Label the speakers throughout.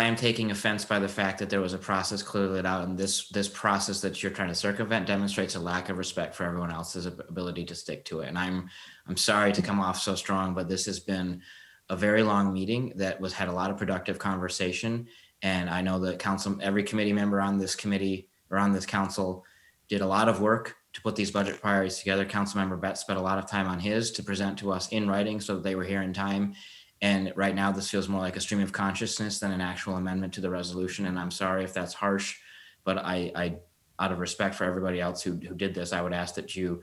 Speaker 1: I am taking offense by the fact that there was a process clearly laid out, and this this process that you're trying to circumvent demonstrates a lack of respect for everyone else's ab- ability to stick to it. And I'm I'm sorry to come off so strong, but this has been a very long meeting that was had a lot of productive conversation. And I know that council, every committee member on this committee or on this council did a lot of work to put these budget priorities together. Councilmember Betts spent a lot of time on his to present to us in writing so that they were here in time. And right now, this feels more like a stream of consciousness than an actual amendment to the resolution. And I'm sorry if that's harsh, but I, I, out of respect for everybody else who, who did this, I would ask that you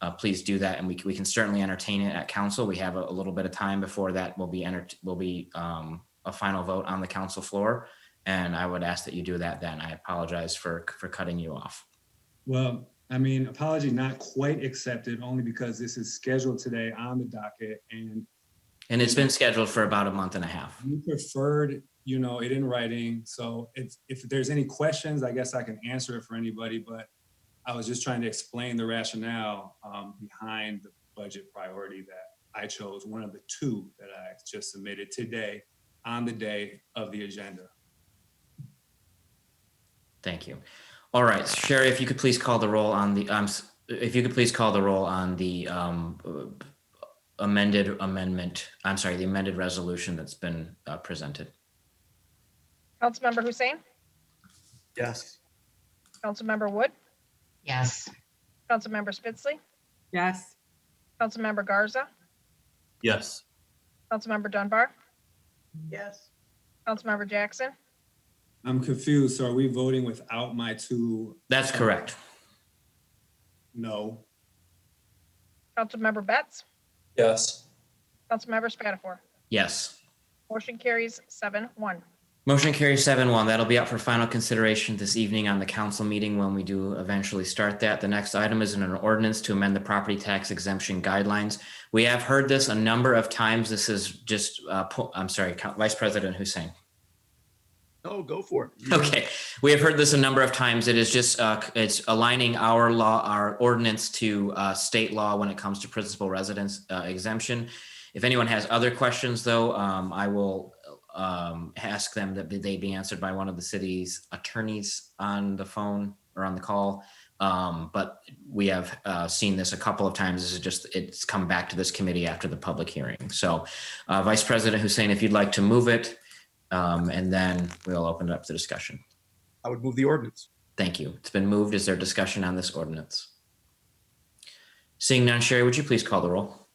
Speaker 1: uh, please do that. And we, c- we can certainly entertain it at council. We have a, a little bit of time before that will be enter, will be um, a final vote on the council floor. And I would ask that you do that then. I apologize for, for cutting you off.
Speaker 2: Well, I mean, apology not quite accepted, only because this is scheduled today on the docket and
Speaker 1: And it's been scheduled for about a month and a half.
Speaker 2: you preferred, you know, it in writing. So if, if there's any questions, I guess I can answer it for anybody, but I was just trying to explain the rationale um, behind the budget priority that I chose, one of the two that I just submitted today on the day of the agenda.
Speaker 1: Thank you. All right, Sherry, if you could please call the roll on the, um, s- if you could please call the roll on the um, amended amendment, I'm sorry, the amended resolution that's been uh, presented.
Speaker 3: Councilmember Hussein,
Speaker 4: Yes.
Speaker 3: Councilmember Wood,
Speaker 5: Yes.
Speaker 3: Councilmember Spitzley,
Speaker 6: Yes.
Speaker 3: Councilmember Garza,
Speaker 4: Yes.
Speaker 3: Councilmember Dunbar,
Speaker 6: Yes.
Speaker 3: Councilmember Jackson,
Speaker 2: I'm confused. So are we voting without my two?
Speaker 1: That's correct.
Speaker 2: No.
Speaker 3: Councilmember Betts,
Speaker 4: Yes.
Speaker 3: Councilmember Spatafor.
Speaker 1: Yes.
Speaker 3: Motion carries seven one.
Speaker 1: Motion carries seven one. That'll be up for final consideration this evening on the council meeting when we do eventually start that. The next item is an ordinance to amend the property tax exemption guidelines. We have heard this a number of times. This is just, uh, po- I'm sorry, Co- Vice President Hussein.
Speaker 4: No, go for it.
Speaker 1: Okay, we have heard this a number of times. It is just, uh, it's aligning our law, our ordinance to, uh, state law when it comes to principal residence uh, exemption. If anyone has other questions though, um, I will, um, ask them that they be answered by one of the city's attorneys on the phone or on the call. Um, but we have, uh, seen this a couple of times. This is just, it's come back to this committee after the public hearing. So, uh, Vice President Hussein, if you'd like to move it, um, and then we'll open it up to discussion.
Speaker 4: I would move the ordinance.
Speaker 1: Thank you. It's been moved. Is there discussion on this ordinance? Seeing none, Sherry, would you please call the roll?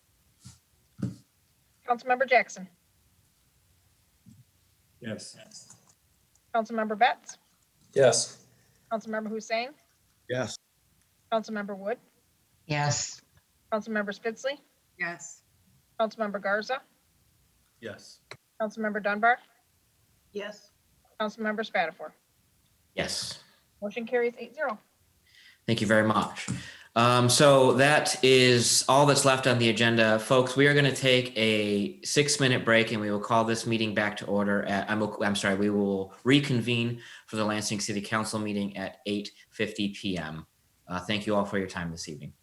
Speaker 3: Councilmember Jackson,
Speaker 2: Yes.
Speaker 3: Councilmember Betts,
Speaker 4: Yes.
Speaker 3: Councilmember Hussein,
Speaker 4: Yes.
Speaker 3: Councilmember Wood,
Speaker 5: Yes.
Speaker 3: Councilmember Spitzley,
Speaker 6: Yes.
Speaker 3: Councilmember Garza,
Speaker 4: Yes.
Speaker 3: Councilmember Dunbar,
Speaker 6: Yes.
Speaker 3: Councilmember Spatafor.
Speaker 1: Yes.
Speaker 3: Motion carries eight zero.
Speaker 1: Thank you very much. Um, so that is all that's left on the agenda, folks. We are going to take a six-minute break, and we will call this meeting back to order. At, I'm, I'm sorry, we will reconvene for the Lansing City Council meeting at 8:50 p.m. Uh, thank you all for your time this evening.